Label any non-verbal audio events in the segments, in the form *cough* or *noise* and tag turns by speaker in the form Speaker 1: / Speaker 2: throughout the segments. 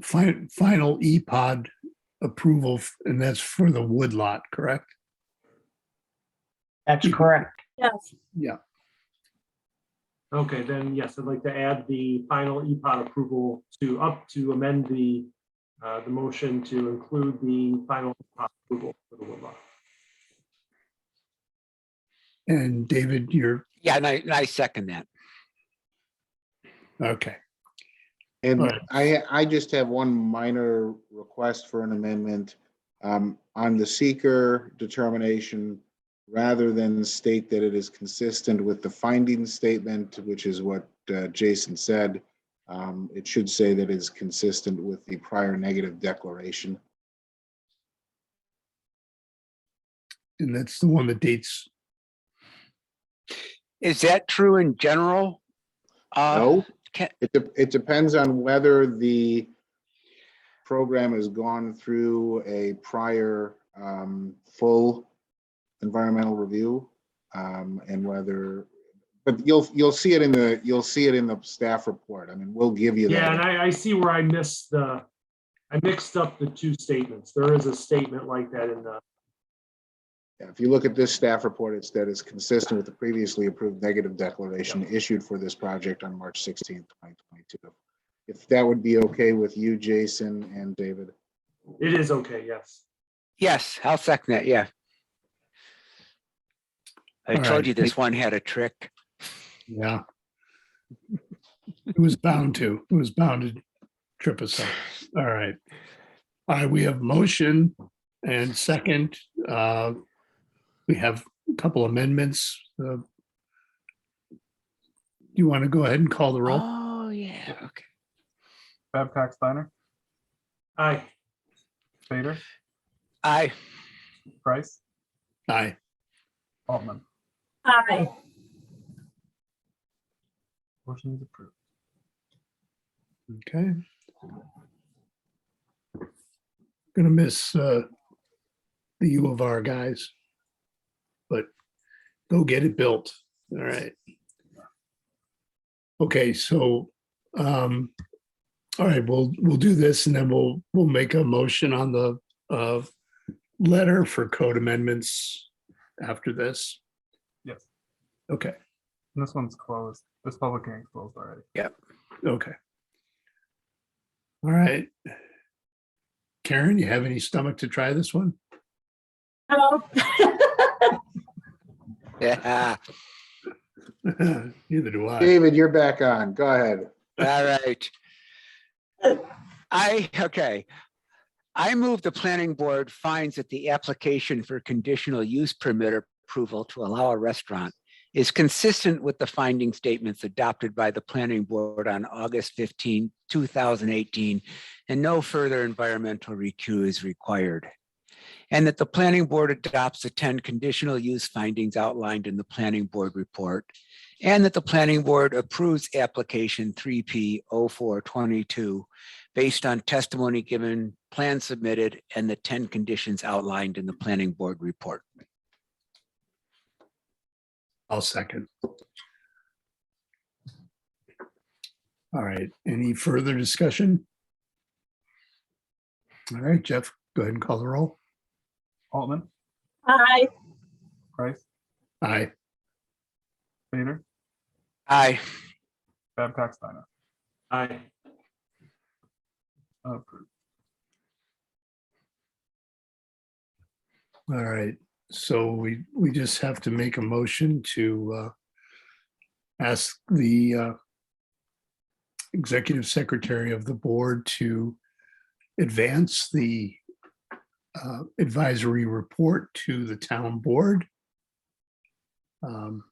Speaker 1: fi- final E E-Pod approval, f- and that's for the woodlot, correct?
Speaker 2: That's correct.
Speaker 3: Yes,
Speaker 1: Yeah.
Speaker 4: Okay, then, yes, I'd like to add the final E EPOD approval to up to amend the, uh, the motion to include the final E EPOD approval for the woodlot.
Speaker 1: And David, you're,
Speaker 5: Yeah, and I, and I second that.
Speaker 1: okay,
Speaker 6: And
Speaker 1: Alright.
Speaker 6: I, I just have one minor request for an amendment. Um, on the seeker determination, rather than state that it is consistent with the finding statement, which is what uh, Jason said, um, it should say that it is consistent with the prior negative declaration.
Speaker 1: and that's the one that dates,
Speaker 5: Is that true in general? Uh,
Speaker 6: No,
Speaker 5: can-
Speaker 6: it, de- it depends on whether the program has gone through a prior um, full environmental review um, and whether, but you'll, you'll see it in the, you'll see it in the staff report. I mean, we'll give you
Speaker 4: Yeah, and
Speaker 6: that.
Speaker 4: I, I see where I missed the, I mixed up the two statements. There is a statement like that in the,
Speaker 6: If you look at this staff report, it's that it's consistent with the previously approved negative declaration issued for this project on March 16th, 2022. If that would be okay with you, Jason and David.
Speaker 4: it is okay, yes.
Speaker 5: yes, I'll second that, yeah. I
Speaker 1: All
Speaker 5: told
Speaker 1: right.
Speaker 5: you this one had a trick.
Speaker 1: yeah. It was bound to, it was bound to trip us up. All right. All right, we have motion and second, uh, we have a couple amendments. uh, You want to go ahead and call the roll?
Speaker 5: Oh, yeah, okay.
Speaker 7: Babcock Steiner,
Speaker 4: Aye,
Speaker 7: Vader,
Speaker 5: I, *laughs*
Speaker 7: Price,
Speaker 1: Aye.
Speaker 7: Altman.
Speaker 3: aye,
Speaker 7: Motion is approved.
Speaker 1: Okay. Gonna miss uh, the U of R guys. But go get it built. All right. Okay, so, um, all right, we'll, we'll do this and then we'll, we'll make a motion on the uh, letter for code amendments after this.
Speaker 7: Yes.
Speaker 1: Okay,
Speaker 7: And this one's closed. This public hearing closed already.
Speaker 1: okay. All right. Karen, you have any stomach to try this one? *laughs*
Speaker 3: no,
Speaker 5: yeah,
Speaker 1: Neither do I.
Speaker 6: David, you're back on. Go ahead.
Speaker 5: all right. I, okay. I move the planning board finds that the application for conditional use permit approval to allow a restaurant is consistent with the finding statements adopted by the planning board on August 15, 2018, and no further environmental recue is required. And that the planning board adopts the 10 conditional use findings outlined in the planning board report. And that the planning board approves application 3P 0422 based on testimony given, plan submitted, and the 10 conditions outlined in the planning board report.
Speaker 1: I'll second. All right, any further discussion? All right, Jeff, go ahead and call the roll.
Speaker 7: Altman,
Speaker 3: aye,
Speaker 7: Price,
Speaker 1: Aye.
Speaker 7: Vader,
Speaker 5: Aye.
Speaker 7: Babcock Steiner,
Speaker 4: aye.
Speaker 7: approved.
Speaker 1: All right, so we, we just have to make a motion to uh, ask the uh, executive secretary of the board to advance the uh, advisory report to the town board. Um,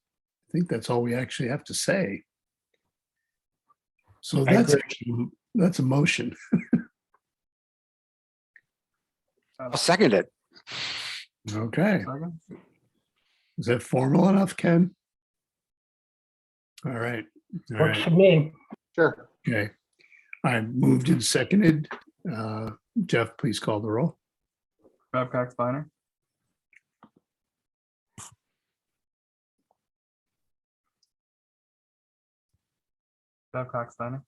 Speaker 1: I think that's all we actually have to say. So that's, actually- that's a motion.
Speaker 5: I'll second it.
Speaker 1: Okay.
Speaker 7: Second,
Speaker 1: Is that formal enough, Ken? All right, all
Speaker 2: Works
Speaker 1: right,
Speaker 2: for me.
Speaker 6: Sure.
Speaker 1: okay. I moved and seconded. Uh, Jeff, please call the roll.
Speaker 7: Babcock Steiner, Babcock Steiner.